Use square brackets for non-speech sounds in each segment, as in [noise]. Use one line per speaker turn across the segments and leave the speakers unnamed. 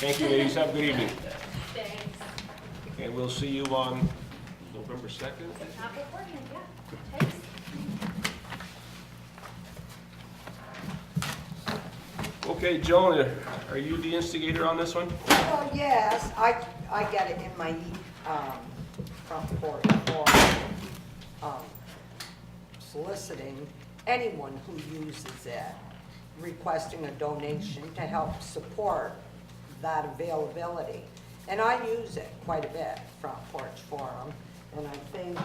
Thank you, ladies. Have a good evening.
Thanks.
And we'll see you on November 2nd.
Not beforehand, yeah. Thanks.
Okay, Joan, are you the instigator on this one?
Well, Oh, yes, I, I got it in my, um, front porch for, um, soliciting anyone who uses it, requesting a donation to help support that availability. And I use it quite a bit, Front Porch Forum, and I think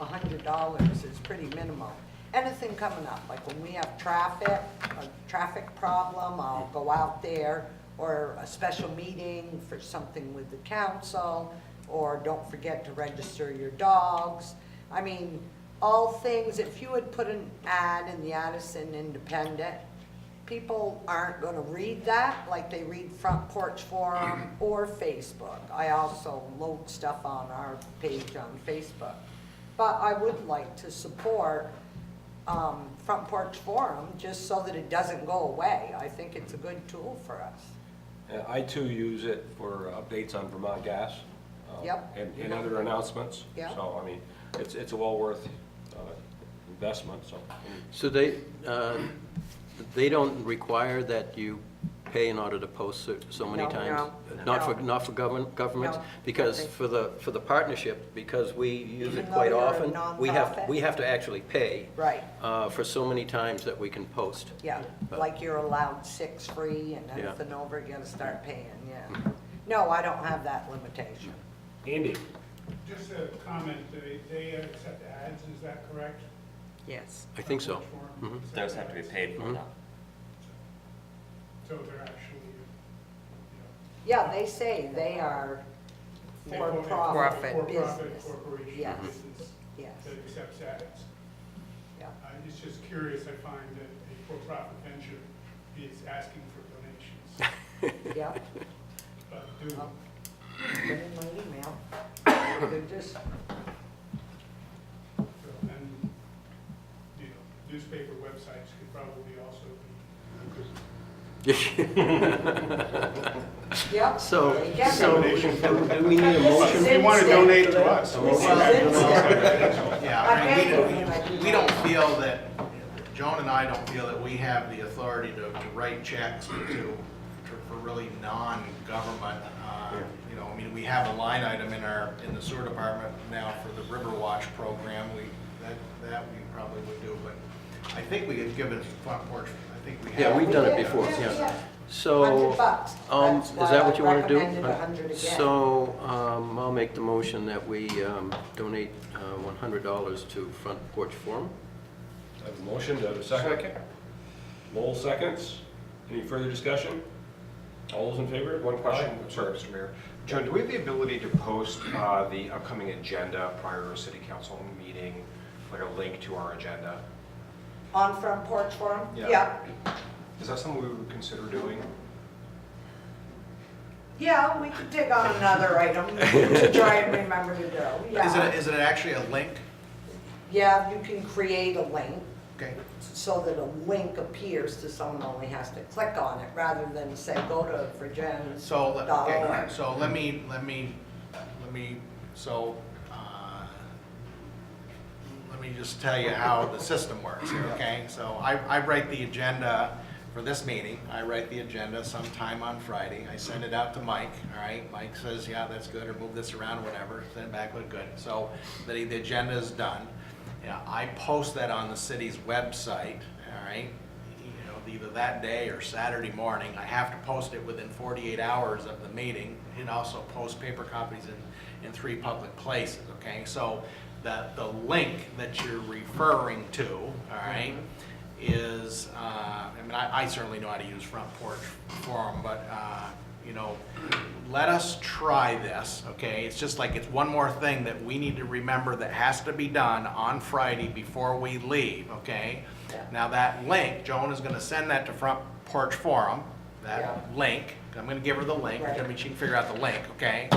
a hundred dollars is pretty minimal. Anything coming up, like when we have traffic, a traffic problem, I'll go out there, or a special meeting for something with the council, or don't forget to register your dogs. I mean, all things, if you had put an ad in the Addison Independent, people aren't gonna read that like they read Front Porch Forum or Facebook. I also load stuff on our page on Facebook. But I would like to support, um, Front Porch Forum, just so that it doesn't go away. I think it's a good tool for us.
Uh, I too use it for updates on Vermont Gas. uh,
Yep.
And, and other announcements.
Yep.
So, I mean, it's, it's a well worth uh, investment, so.
So they, uh, they don't require that you pay in order to post so- so many
No,
times?
no,
Not for,
no.
not for government, governments?
No,
Because
nothing.
for the, for the partnership, because we use
Even
it
though
quite
you're a
often, we have,
nonprofit?
we have to actually pay
Right,
uh, for so many times that we can post. Uh,
yeah, like you're allowed six free and
Yeah.
anything over, you gotta start paying, yeah. No, I don't have that limitation.
Andy?
Just a comment, they, they accept ads, is that correct?
Yes.
I think so. Mm-hmm.
Mhm.
Those have to be paid for now.
So they're actually, you
Yeah, they say they are
know.
for-profit
For-profit
business.
corporation
Yes.
business
Yes,
that accepts ads.
yeah,
I was just curious, I find that a for-profit venture is asking
[laughs]
for donations,
yeah.
but do,
I'll Put it in my email. They're just,
and, you know, newspaper websites could probably also be a good
yeah.
So,
there you go.
so, do do we need a motion?
If you want to donate to us.
This is it.
Yeah,
I
I mean,
hate
we
when I do
don't, we
that.
don't feel that, Joan and I don't feel that we have the authority to, to write checks to, to- for really non-government, uh, you know, I mean, we have a line item in our, in the sewer department now for the River Watch program, we, that, that we probably would do, but I think we had given Front Porch, I think we have.
Yeah, we've done it
Yeah,
before,
yeah,
yeah.
yeah.
So,
Hundred bucks.
um,
That's
is
why
that what you
I
want to do?
recommended a hundred again.
So, um, I'll make the motion that we um, donate uh, $100 to Front Porch Forum.
I have a motion, do I have a second? Lowell seconds. Any further discussion? All those in favor? One
Question, sorry, Mr. Mayor. Joan, do we have the ability to post uh, the upcoming agenda prior to a city council meeting, like a link to our agenda?
On Front Porch Forum?
Yeah. Is that something we would consider doing?
Yeah, we could dig on another item to try and remember to do,
Is it,
yeah.
is it actually a link?
Yeah, you can create a link
Okay,
so that a link appears to someone only has to click on it rather than say, go to Virgin's.
so, let- okay,
Dollar.
so let me, let me, let me, so, uh, let me just tell you how the system works here, okay? So I, I write the agenda for this meeting, I write the agenda sometime on Friday, I send it out to Mike, all right? Mike says, yeah, that's good, or move this around, or whatever, send it back, look good. So the, the agenda is done. Yeah, I post that on the city's website, all right? You know, either that day or Saturday morning, I have to post it within forty-eight hours of the meeting, and also post paper copies in, in three public places, okay? So the, the link that you're referring to, all right, is, uh, I mean, I, I certainly know how to use Front Porch Forum, but, uh, you know, let us try this, okay? It's just like, it's one more thing that we need to remember that has to be done on Friday before we leave, okay?
Yeah.
Now, that link, Joan is gonna send that to Front Porch Forum, that
Yeah.
link, I'm gonna give her the link, I
Right.
mean, she can figure out the link, okay?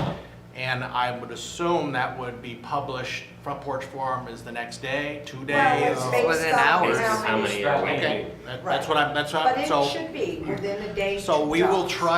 And I would assume that would be published, Front Porch Forum is the next day, uh, two
Well,
days?
it's based
Within
on
hours.
how
How
many
many are
Okay.
Okay, that- that's what I'm, that's what,
But
I'm-
it
so,
should be within a day.
so we will try